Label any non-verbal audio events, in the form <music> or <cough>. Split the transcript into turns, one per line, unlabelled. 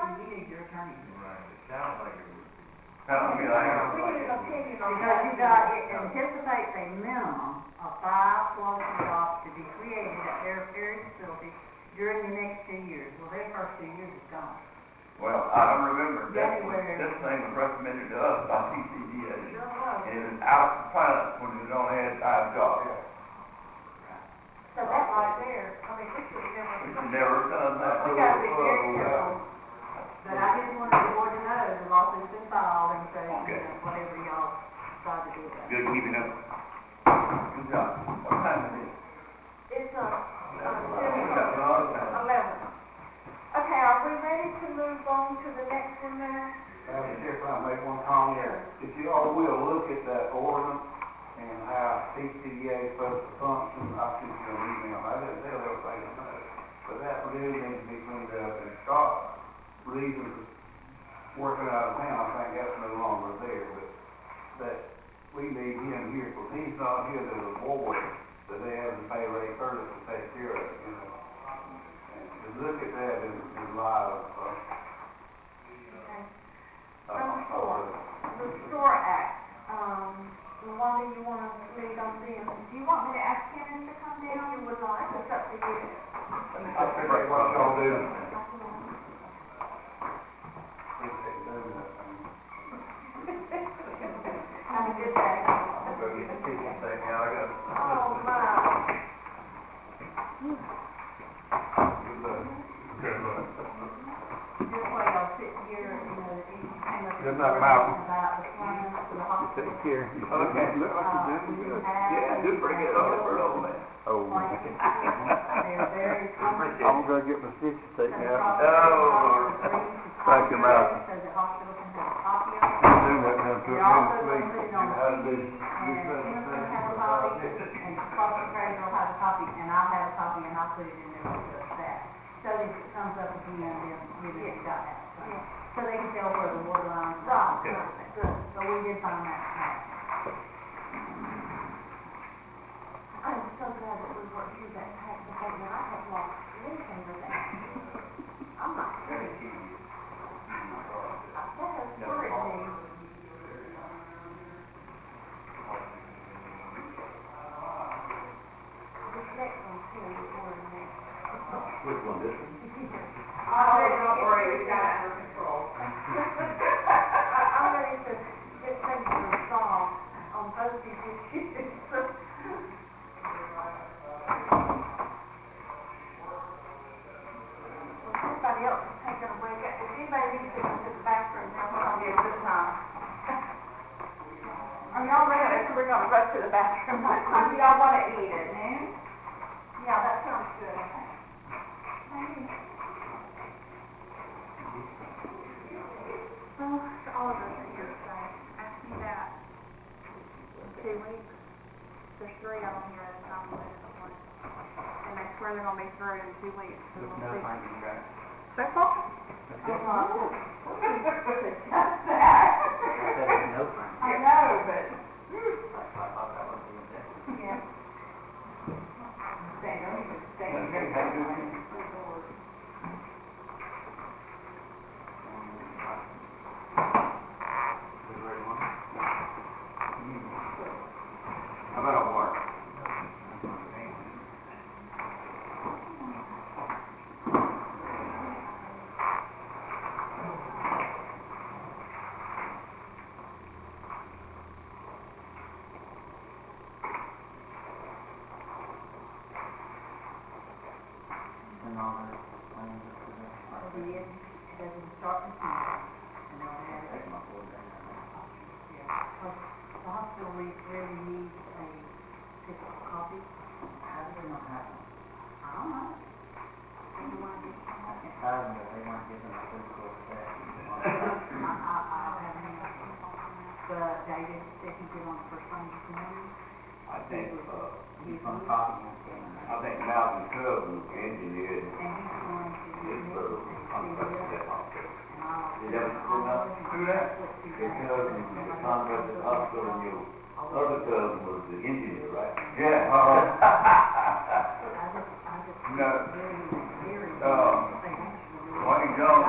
Lake County.
Right, it sounds like it would be.
I mean, I,
We need an opinion on
Because
that.
you got, it anticipates a minimum of five quality jobs to be created at their various facilities during the next two years. Well, their first two years is gone.
well, I don't remember, this,
January.
this thing was recommended to us by TCDA,
Sure was.
and it was out of compliance when it only had five jobs.
So that right there, I mean, we should never.
We should never have done that. Oh,
We gotta be very careful.
But I just wanted the board to know the lawsuit's been filed and so, you
Okay.
know, whatever y'all decide to do about it.
Good keeping up. Good job. What time is it?
It's a,
We got a lot of time.
eleven. Okay, are we ready to move on to the next one now?
Madam Chair, if I may one comment, if you all will look at that ordinance and how TCDA supposed to function, I sent you an email, I didn't tell everybody to know. But that really needs to be cleaned up, and Scott's reason for working out of town, I think that's no longer there, but that we need him here, because he's not here, there's a board that they have to pay Ray Curtis to take care of, you know. And to look at that in, in light of, uh,
Okay.
of-
Number four.
of-
The SOAR Act, um, Wanda, you wanna lead on them?
Do you want me to ask Kevin to come
If
down?
you would like, it's up to you.
I figured what y'all do. Appreciate doing that.
Have a good day.
I'll go get the kitchen thing out, I got.
Oh, my.
Good luck.
Good luck.
Just while y'all sitting here, you know, if you came up with
Good luck, Malcolm.
about the plan for the hospital. Uh,
Take care.
<laughs> Okay.
Look like you're doing good.
Yeah, do bring it up for an old man.
Oh.
Like, they're very comfortable.
I'm gonna get my stitches taken out.
Oh.
Thank you, Malcolm.
So the hospital can have a copy of it.
Do that now, put
They're
it in.
also gonna put it on
How to
TV,
do-
and Emerson has a copy, and Foster Fraser will have a copy, and I'll have a copy, and I'll put it in there with us that. So if it comes up again, then we just got that.
Yeah.
So they can tell where the water lines are.
Right, right, good.
So we did find that out.
I'm so glad that we worked through that tax abatement. I have lost anything with that. I'm not kidding. I said it's worried me. This next one's here, this one next.
Which one, this one?
<laughs> Oh, don't worry, we got it under control. <laughs>
<laughs>
I'm ready to get things resolved on both these issues. Well, <laughs> somebody else is taking a break. If anybody needs to go to the bathroom, now we're on here this time.
Are y'all ready? So we're gonna rush to the bathroom. What time do y'all want it needed? Noon?
Yeah, that sounds good, I think.
Well, all of us are here today. I see that in two weeks, there's three of them here that's not related to one. And they swear they're gonna be through in two weeks, so we'll see. So far?
Just that. I know, but. Yeah. They don't even say.
Okay, how you doing? How about a war?
Over the years, it doesn't start with me. And I've had it. Yeah, 'cause the hospital re- really needs a physical copy. How do they not have one? I don't know. Do you want to get one? I, I, I don't have any. But David said he did on the first time this morning.
I think, uh,
He was on
I think Malcolm Coven
And
engineered
he's going to.
his, uh, contract with that hospital.
And I'll-
Did that come up through that? If
"Oh,
Coven was the contract with the hospital and your other Coven was the engineer, right? Yeah, uh-huh. <laughs>
I just, I just. Very,
No.
very. They
Um,
actually-
Wayne John